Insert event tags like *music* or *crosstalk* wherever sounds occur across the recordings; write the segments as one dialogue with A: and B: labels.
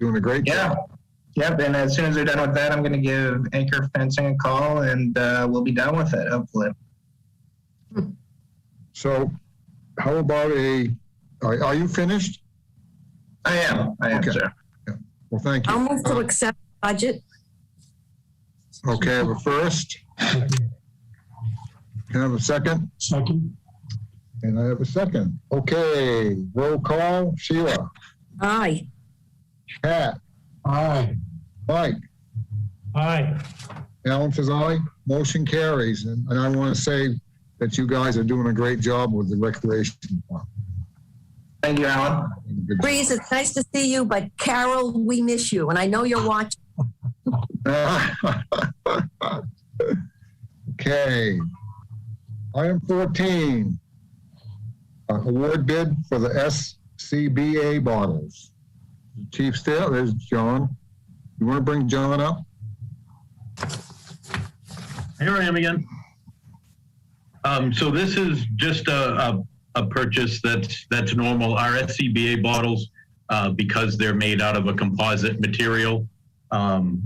A: doing a great
B: Yeah.
A: job.
B: Yep. And as soon as they're done with that, I'm going to give Anchor Fencing a call and uh, we'll be done with it, hopefully.
A: So how about a, are, are you finished?
B: I am. I am,
A: Okay.
B: sir.
A: Well, thank
C: I'll
A: you.
C: move to accept budget.
A: Okay, I have a first. Can I have a second?
D: Second,
A: And I have a second. Okay, roll call, Sheila,
C: Aye.
A: Pat,
D: aye,
A: Mike,
D: aye.
A: Alan says aye, motion carries. And and I want to say that you guys are doing a great job with the recreation. department.
B: Thank you, Alan.
A: Good job.
C: Breeze, it's nice to see you, but Carol, we miss you, and I know you're watching.
A: *laughs* Okay. Item 14, uh, award bid for the SCBA bottles. Chief Still, there's John. You want to bring John up?
E: Here I am again. Um, so this is just a, a, a purchase that's, that's normal. Our SCBA bottles, uh, because they're made out of a composite material, um,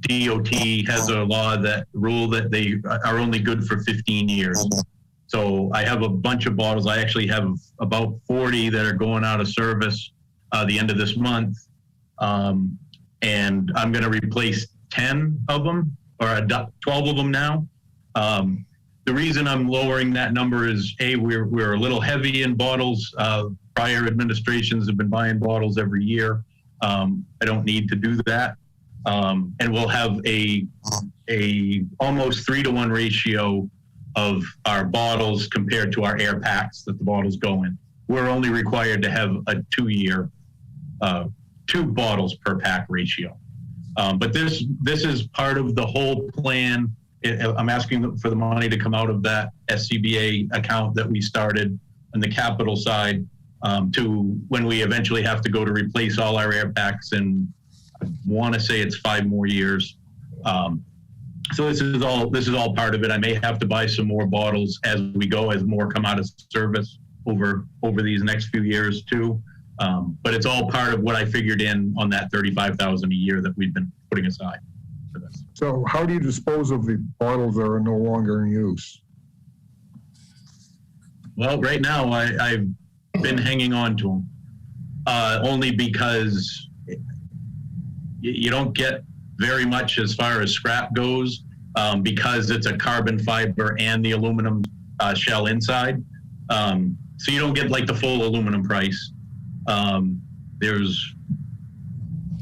E: DOT has a law that rule that they are only good for 15 years. So I have a bunch of bottles. I actually have about 40 that are going out of service, uh, the end of this month. Um, and I'm going to replace 10 of them or adopt 12 of them now. Um, the reason I'm lowering that number is A, we're, we're a little heavy in bottles. Uh, prior administrations have been buying bottles every year. Um, I don't need to do that. Um, and we'll have a, a almost three to one ratio of our bottles compared to our air packs that the bottles go in. We're only required to have a two year, uh, two bottles per pack ratio. Um, but this this is part of the whole plan. I- I'm asking for the money to come out of that SCBA account that we started on the capital side um, to when we eventually have to go to replace all our air packs and I want to say it's five more years. Um, so this is all this is all part of it. I may have to buy some more bottles as we go as more come out of service over over these next few years too. Um, but it's all part of what I figured in on that thirty-five thousand a year that we've been putting aside for this.
A: So how do you dispose of the bottles that are no longer in use?
E: Well, right now I, I've been hanging on to them uh, only because y- you don't get very much as far as scrap goes um, because it's a carbon fiber and the aluminum uh, shell inside. Um, so you don't get like the full aluminum price. Um, there's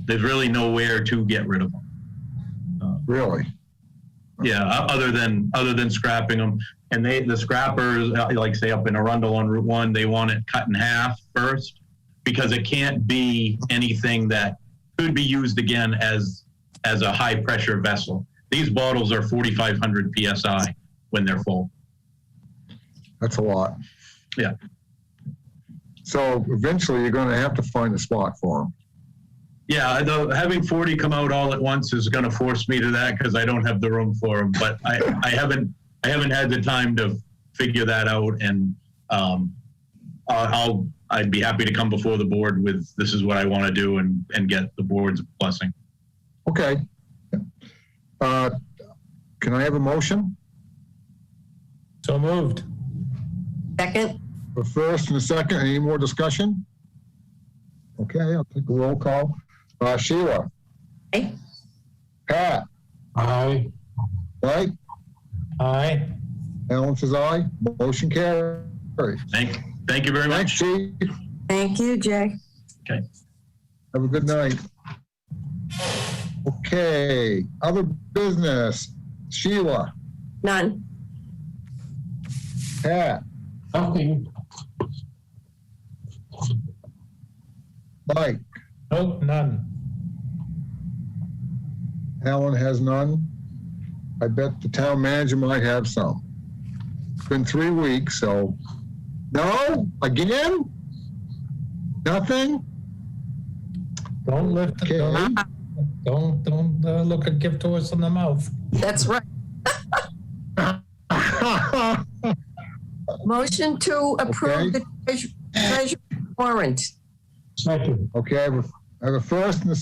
E: there's really nowhere to get rid of them.
A: Really?
E: Yeah, o- other than other than scrapping them, and they the scrappers, uh, like say up in Arundel on Route One, they want it cut in half first because it can't be anything that could be used again as as a high pressure vessel. These bottles are 4,500 psi when they're full.
A: That's a lot.
E: Yeah.
A: So eventually you're going to have to find a spot for them.
E: Yeah, though having 40 come out all at once is going to force me to that because I don't have the room for them. But I, I haven't I haven't had the time to figure that out, and um, I- I'll I'd be happy to come before the board with this is what I want to do and and get the board's blessing.
A: Okay. Uh, Can I have a motion?
D: So moved.
C: Second?
A: A first and a second, any more discussion? Okay, I'll take a roll call. Uh, Sheila?
C: Aye.
A: Pat?
D: Aye,
A: Right?
D: aye.
A: Alan says aye. Motion carries.
E: Thank thank you very
A: Thanks,
E: much.
A: Chief.
C: Thank you, Jay.
A: Have a good night. Okay, other business. Sheila?
C: None.
A: Pat?
D: Nothing.
A: Mike?
D: Nope, none.
A: Alan has none. I bet the town manager might have some. It's been three weeks, so. No? Again? Nothing?
D: Don't
A: *laughs*
D: lift,
A: Okay.
D: don't, don't, don't uh, look a gift horse in the mouth.
C: That's right. Motion to approve the treasure treasure warrant.
D: Second.
A: Okay, I have a- I have a first and a